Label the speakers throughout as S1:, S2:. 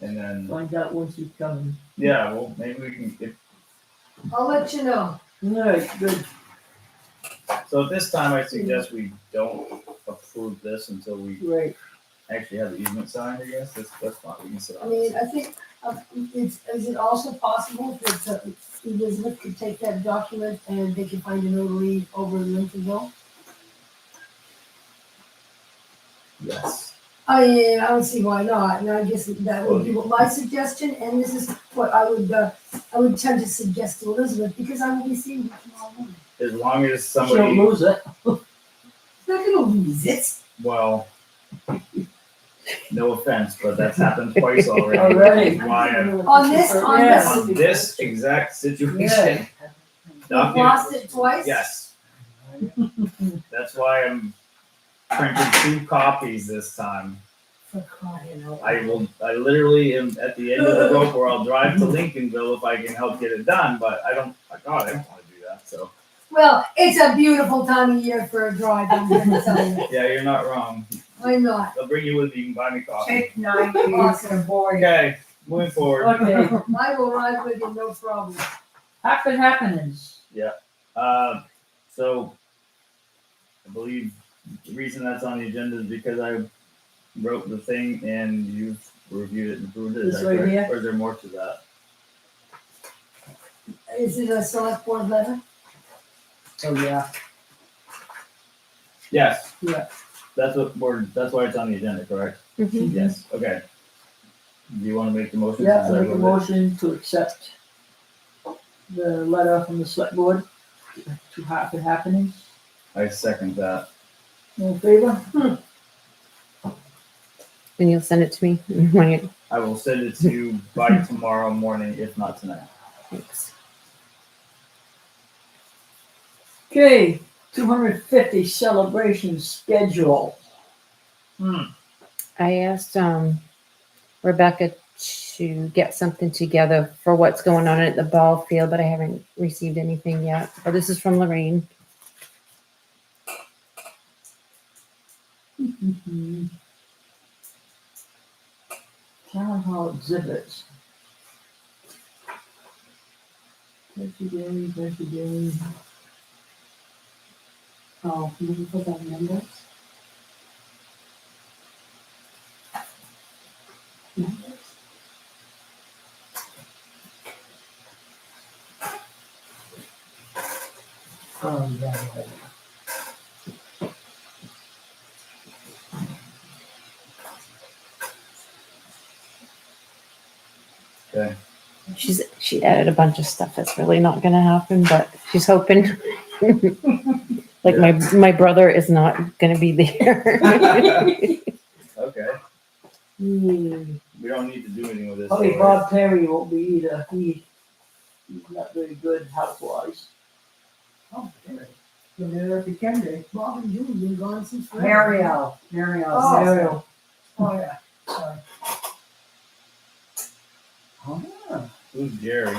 S1: And then,
S2: Find out when she's coming.
S1: yeah, well, maybe we can, if,
S3: I'll let you
S2: All
S3: know.
S2: right, good.
S1: so at this time, I suggest we don't approve this until we
S2: Right.
S1: actually have the easement signed, I guess, that's, that's fine, we can sit
S3: I
S1: on
S3: mean,
S1: it.
S3: I think, uh, it's, is it also possible that uh, Elizabeth could take that document and they could find a notary over in Lincolnville?
S1: Yes.
S3: I mean, I don't see why not, and I guess that would be what my suggestion, and this is what I would, uh, I would tend to suggest to Elizabeth, because I will be seeing her tomorrow morning.
S1: As long as
S2: She don't
S1: somebody,
S2: lose it.
S3: She's not gonna lose it.
S1: well, no offense, but that's happened twice already.
S2: Already.
S1: Why, I'm-
S3: On this- on
S2: Yeah.
S3: this-
S1: on this exact situation,
S2: Yeah.
S3: We've
S1: document
S3: lost it twice.
S1: Yes. That's why I'm printing two copies this time.
S3: For crying out
S1: I will, I literally am at the end of the rope where I'll drive to Lincolnville if I can help get it done, but I don't, my God, I don't wanna do that, so.
S3: Well, it's a beautiful time of year for a drive, I'm gonna tell you.
S1: Yeah, you're not wrong.
S3: I'm not.
S1: I'll bring you with me, you can buy me coffee.
S4: Take nine years and boy.
S1: Okay, moving forward.
S2: Okay,
S3: I will ride with you, no problem.
S2: happen happenings.
S1: Uh, so I believe the reason that's on the agenda is because I wrote the thing and you reviewed it and approved it. Is
S2: This
S1: that
S2: right
S1: correct?
S2: here?
S1: Or is there more to that?
S3: Is it a select board letter?
S2: Oh, yeah.
S1: Yes.
S2: Yeah. Mm-hmm.
S1: That's what we're, that's why it's on the agenda, correct?
S5: Mhm.
S1: Yes. Okay. Do you want to make the motion?
S2: Yeah,
S1: since I
S2: I make a
S1: wrote it?
S2: motion to accept the letter from the select board to happen happenings.
S1: I second that.
S2: All in favor?
S5: And you'll send it to me when you,
S1: I will send it to you by tomorrow morning, if not tonight.
S5: thanks.
S2: Okay, two hundred fifty celebration schedule.
S5: I asked um, Rebecca to get something together for what's going on at the ball field, but I haven't received anything yet. But this is from Lorraine.
S2: Town hall exhibits. Thank you, Gary, thank you, Gary.
S6: Oh, can we put that number?
S2: Oh, yeah.
S5: She's she added a bunch of stuff that's really not going to happen, but she's hoping. like my my brother is not going to be there.
S1: Okay.
S2: Hmm.
S1: We don't need to do anything with this.
S2: Probably
S1: so-
S2: Bob Perry won't be either. He, he's not very good health wise.
S3: Oh, there.
S4: You know, if you can do.
S3: Bob and Julie been gone since forever.
S4: Mario, Mario's.
S3: Oh.
S2: Ariel,
S3: Oh, yeah, sorry.
S1: Who's Jerry?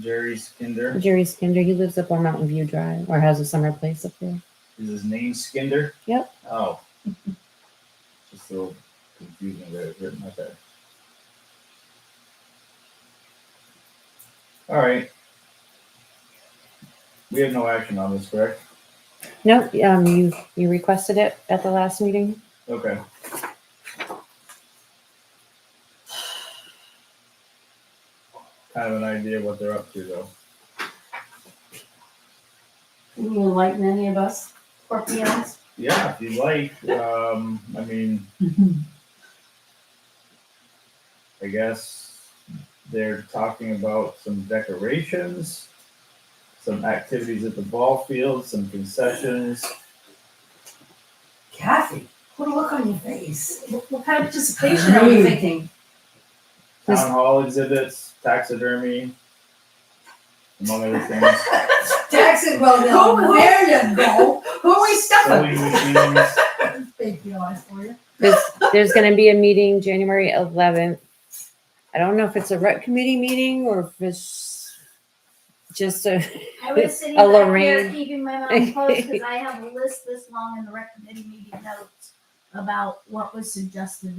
S1: Jerry Skinder.
S5: Jerry Skinder, he lives up on Mountain View Drive or has a summer place up there.
S1: Is his name Skinder?
S5: Yep.
S1: Oh. Just a little confusing there, it's written, okay. All right. We have no action on this, correct?
S5: No, um, you you requested it at the last meeting.
S1: Okay. Kind of an idea what they're up to though.
S6: Can you enlighten any of us Scorpions?
S1: Yeah, if you'd like, um, I mean, I guess they're talking about some decorations, some activities at the ball field, some concessions.
S3: Kathy, what a look on your face.
S6: What what kind of participation are we thinking?
S5: This-
S1: town hall exhibits, taxidermy, among other things.
S3: Jackson, well,
S6: Go
S3: now,
S6: away.
S3: there you go.
S6: Who are we stuffing?
S1: Sewing machines.
S3: Thank you, I for you.
S5: There's there's going to be a meeting January 11th. I don't know if it's a rec committee meeting or if it's just a
S7: I was sitting
S5: A
S7: back here
S5: Lorraine.
S7: keeping my mouth closed because I have a list this long in the rec committee meeting notes about what was suggested